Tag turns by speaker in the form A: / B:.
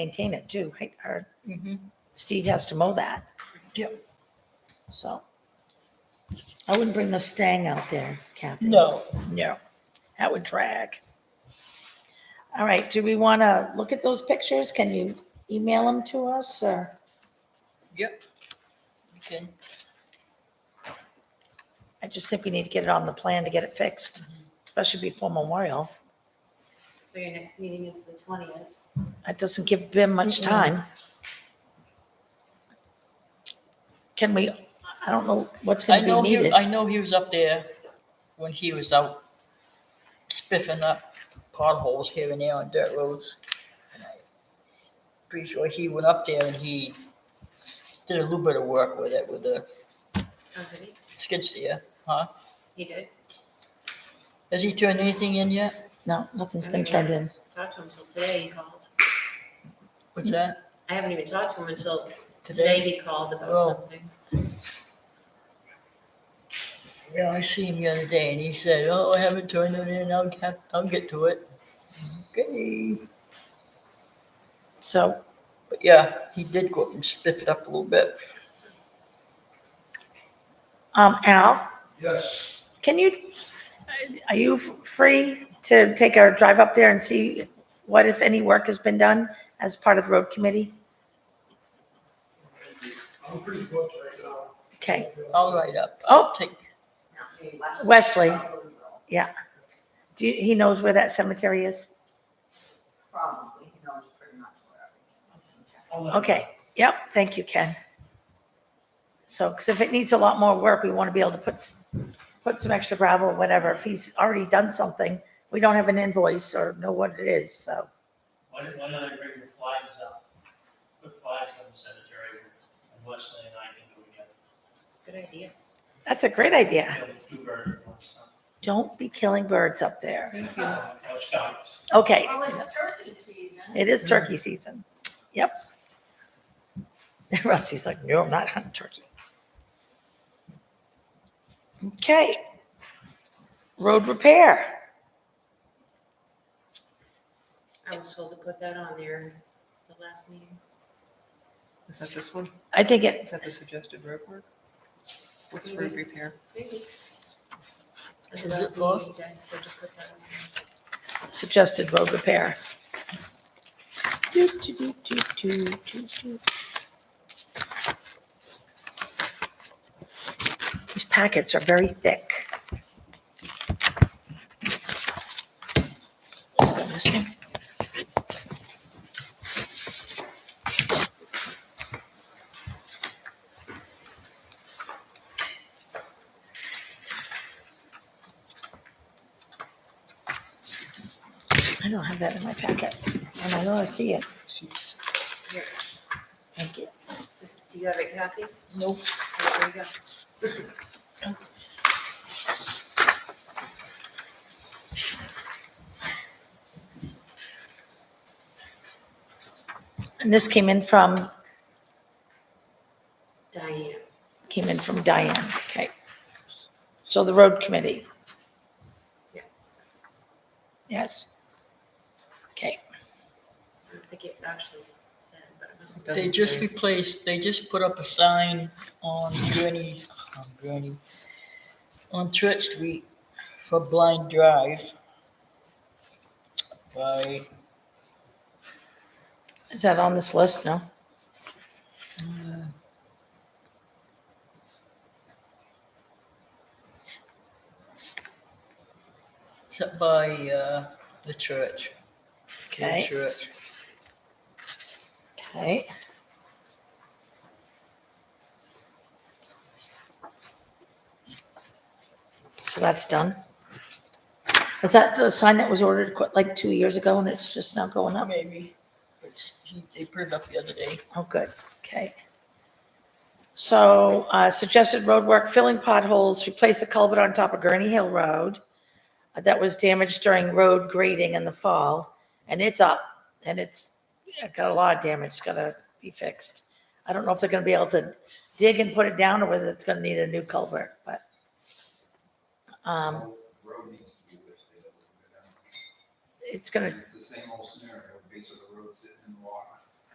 A: maintain it too, right? Or Steve has to mow that.
B: Yep.
A: So. I wouldn't bring the stang out there, Kathy.
B: No,
A: No, that would drag. All right, do we want to look at those pictures? Can you email them to us or?
B: yep. You can,
A: I just think we need to get it on the plan to get it fixed, especially before Memorial.
C: So your next meeting is the twentieth.
A: That doesn't give Bim much
B: Mm-mm.
A: time. Can we, I don't know what's
B: I
A: going to
B: know
A: be
B: he,
A: needed.
B: I know he was up there when he was out spiffing up potholes here and there on dirt roads. And I Pretty sure he went up there and he did a little bit of work with it, with the
C: Oh, did he?
B: skid steer, huh?
C: He did.
B: Has he turned anything in yet?
A: No, nothing's
C: I
A: been
C: don't
A: turned
C: know.
A: in.
C: Talked to him until today, he called.
B: What's that?
C: I haven't even talked to him until today
B: Today?
C: he called
B: Oh.
C: about something.
B: Yeah, I see him the other day and he said, oh, I haven't turned it in, I'll get, I'll get to it. Okay.
A: So
B: But yeah, he did go up and spit it up a little bit.
A: Um, Al,
D: Yes,
A: can you, are you f- free to take our drive up there and see what, if any, work has been done as part of the road committee?
D: I'm pretty booked right now.
A: Okay,
B: I'll write up.
A: Oh.
B: Take,
A: Wesley, do you, he knows where that cemetery is?
E: Probably, he knows pretty much where everything is.
A: Okay, yep, thank you, Ken. So, because if it needs a lot more work, we want to be able to put, s- put some extra gravel or whatever. If he's already done something, we don't have an invoice or know what it is, so.
F: Why did why don't I bring the flags up? Put flags on the cemetery and Wesley and I can do it again.
C: Good idea.
A: That's a great idea.
F: You know, two birds with one stone.
A: Don't be killing birds up there.
C: Thank you.
F: Uh, Girl Scouts.
A: Okay.
E: Well, it's turkey season.
A: It is turkey season. Yep. Rusty's like, no, I'm not hunting turkey. Okay. Road repair.
C: I was told to put that on there the last meeting.
G: Is that this one?
A: I think it,
G: Is that the suggested road work? What's
C: Mhm.
G: road repair?
C: Maybe. At
B: Is
C: the
B: it
C: last
B: both?
C: meeting, you guys said to put that on there.
A: suggested road repair. Do, do, do, do, do, do, do. These packets are very thick. This one? I don't have that in my packet, and I know I see it.
B: Jeez.
C: Here,
A: Thank you.
C: Just, do you have it, Kathy?
B: Nope.
C: Oh, There you go.
A: And this came in from,
C: Diane.
A: came in from Diane, okay. So the road committee, yes. Okay,
C: I don't think it actually said, but it must have.
G: Doesn't
B: They just
G: say.
B: replaced, they just put up a sign on Gurney, on Gurney, on Church Street for Blind Drive by,
A: is that on this list? No?
B: uh, is that by uh, the church. the
A: Okay.
B: Church.
A: Okay. So that's done. Is that the sign that was ordered quite like two years ago and it's just now going up?
B: Maybe. It's- he- They put it up the other day.
A: Oh, good, okay. So uh, suggested roadwork, filling potholes, replace a culvert on top of Gurney Hill Road uh, that was damaged during road grading in the fall, and it's up, and it's yeah, got a lot of damage, it's gotta be fixed. I don't know if they're gonna be able to dig and put it down, or whether it's gonna need a new culvert, but. um,
D: Road needs to be lifted up a little bit.
A: It's gonna,
D: It's the same old scenario, base of the road sitting in the water.